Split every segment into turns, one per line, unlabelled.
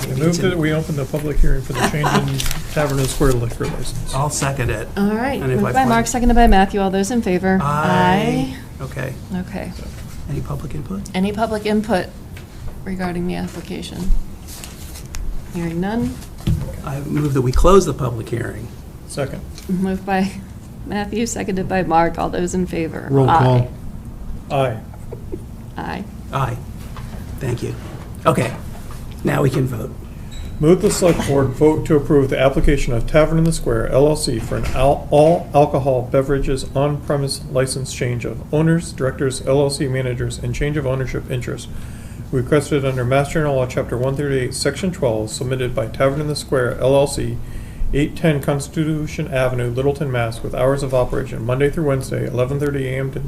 I move that we open the public hearing for the change in Tavern and Square liquor license.
I'll second it.
All right,
And if I
moved by
find-
Mark, seconded by Matthew. All those in favor?
Okay.
Aye. Okay.
Any public input?
Any public input regarding the application? Hearing none.
I move that we close the public hearing.
Second.
Moved by Matthew, seconded by Mark. All those in favor?
Roll call.
Aye.
Aye.
Aye. Thank you. Okay, now we can vote.
Move the select board vote to approve the application of Tavern in the Square LLC for an al- all alcohol beverages on-premise license change of owners, directors, LLC managers, and change of ownership interest requested under Mass General Law, Chapter 138, Section 12, submitted by Tavern in the Square LLC, 810 Constitution Avenue, Littleton, Mass., with hours of operation Monday through Wednesday, 11:30 a.m. to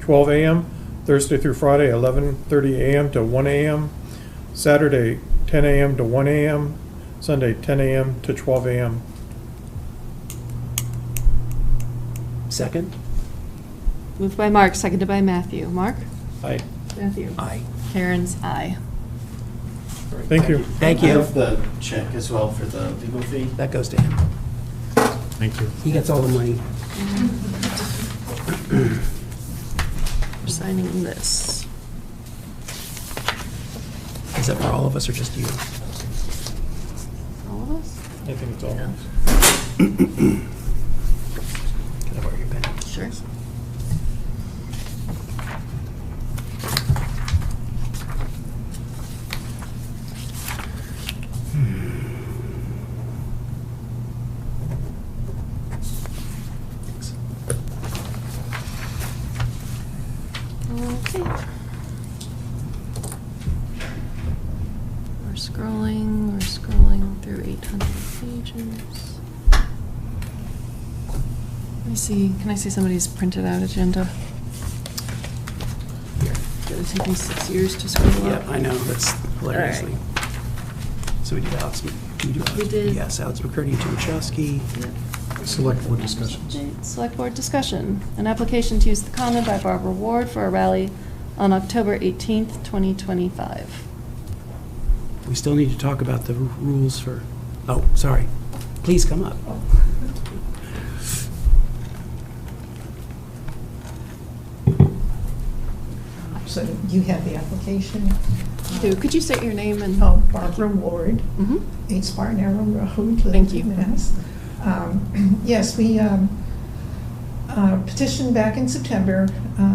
12 a.m., Thursday through Friday, 11:30 a.m. to 1 a.m., Saturday, 10 a.m. to 1 a.m., Sunday, 10 a.m. to 12 a.m.
Second?
Moved by Mark, seconded by Matthew. Mark?
Aye.
Matthew.
Aye.
Karen's aye.
Thank you.
Thank
I
you.
have the check as well for the legal fee.
That goes to him.
Thank you.
He gets all the money.
We're Signing this.
Is that for all of us or just you?
All of us?
I think it's all.
Can I borrow your pen?
Sure.
Thanks.
Okay. We're scrolling, we're scrolling through 800 pages. Let me see, can I see somebody's printed out agenda?
Here.
It'll take me six years to scroll
Yeah,
up.
I know, that's hilariously.
All
So we do Alex, we do
We did-
Alex, yes, Alex McCurdy, Jim Chowski.
Yep.
Select board discussions.
Update, Select Board discussion. An application to use the common by Barbara Ward for a rally on October 18th, 2025.
We still need to talk about the ru- rules for, oh, sorry. Please come up.
So you have the application.
Sue, Could you state your name and?
Oh, Barbara Ward,
Mhm.
8 Spartan Arrow Road.
Thank you.
Littleton, Mass. Um, Yes, we um, uh, petitioned back in September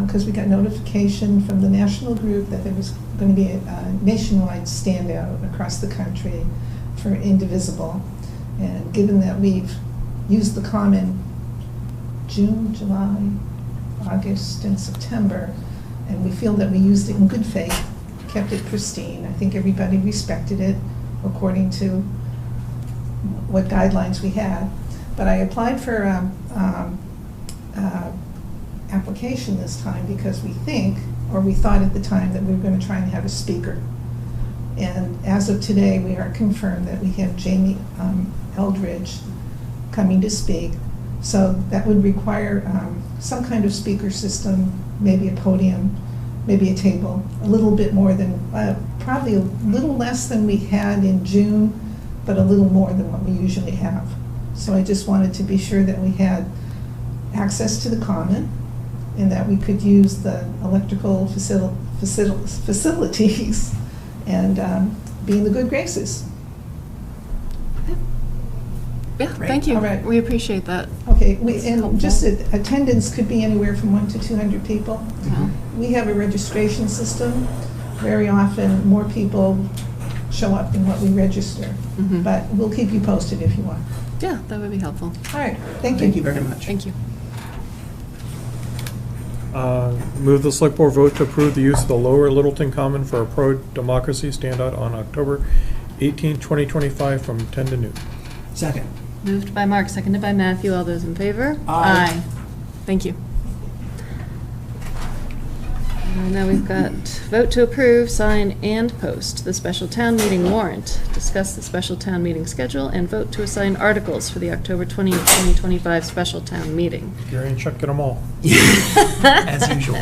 because we got notification from the national group that there was going to be a a nationwide standout across the country for indivisible. And given that we've used the common June, July, August, and September, and we feel that we used it in good faith, kept it pristine. I think everybody respected it according to what guidelines we had. But I applied for um, um, uh, application this time because we think, or we thought at the time, that we were going to try and have a speaker. And as of today, we are confirmed that we have Jamie um, Eldridge coming to speak. So that would require um, some kind of speaker system, maybe a podium, maybe a table, a little bit more than, uh, probably a little less than we had in June, but a little more than what we usually have. So I just wanted to be sure that we had access to the common and that we could use the electrical facil- facil- facilities and um, be in the good graces.
Yeah,
Great.
thank you.
All right.
We appreciate that.
Okay, we,
helpful.
and just that attendance could be anywhere from one to 200 people.
Wow.
We have a registration system. Very often, more people show up than what we register.
Mhm.
But we'll keep you posted if you want.
Yeah, that would be helpful.
All right, thank you.
Thank you very much.
Thank you.
Uh, Move the select board vote to approve the use of the lower Littleton Common for a pro-democracy standout on October 18, 2025, from 10 to noon.
Second.
Moved by Mark, seconded by Matthew. All those in favor?
Aye.
Thank you. And Uh, Now we've got vote to approve, sign, and post the special town meeting warrant. Discuss the special town meeting schedule and vote to assign articles for the October 20, 2025 special town meeting.
Gary and Chuck, get them all.
As usual.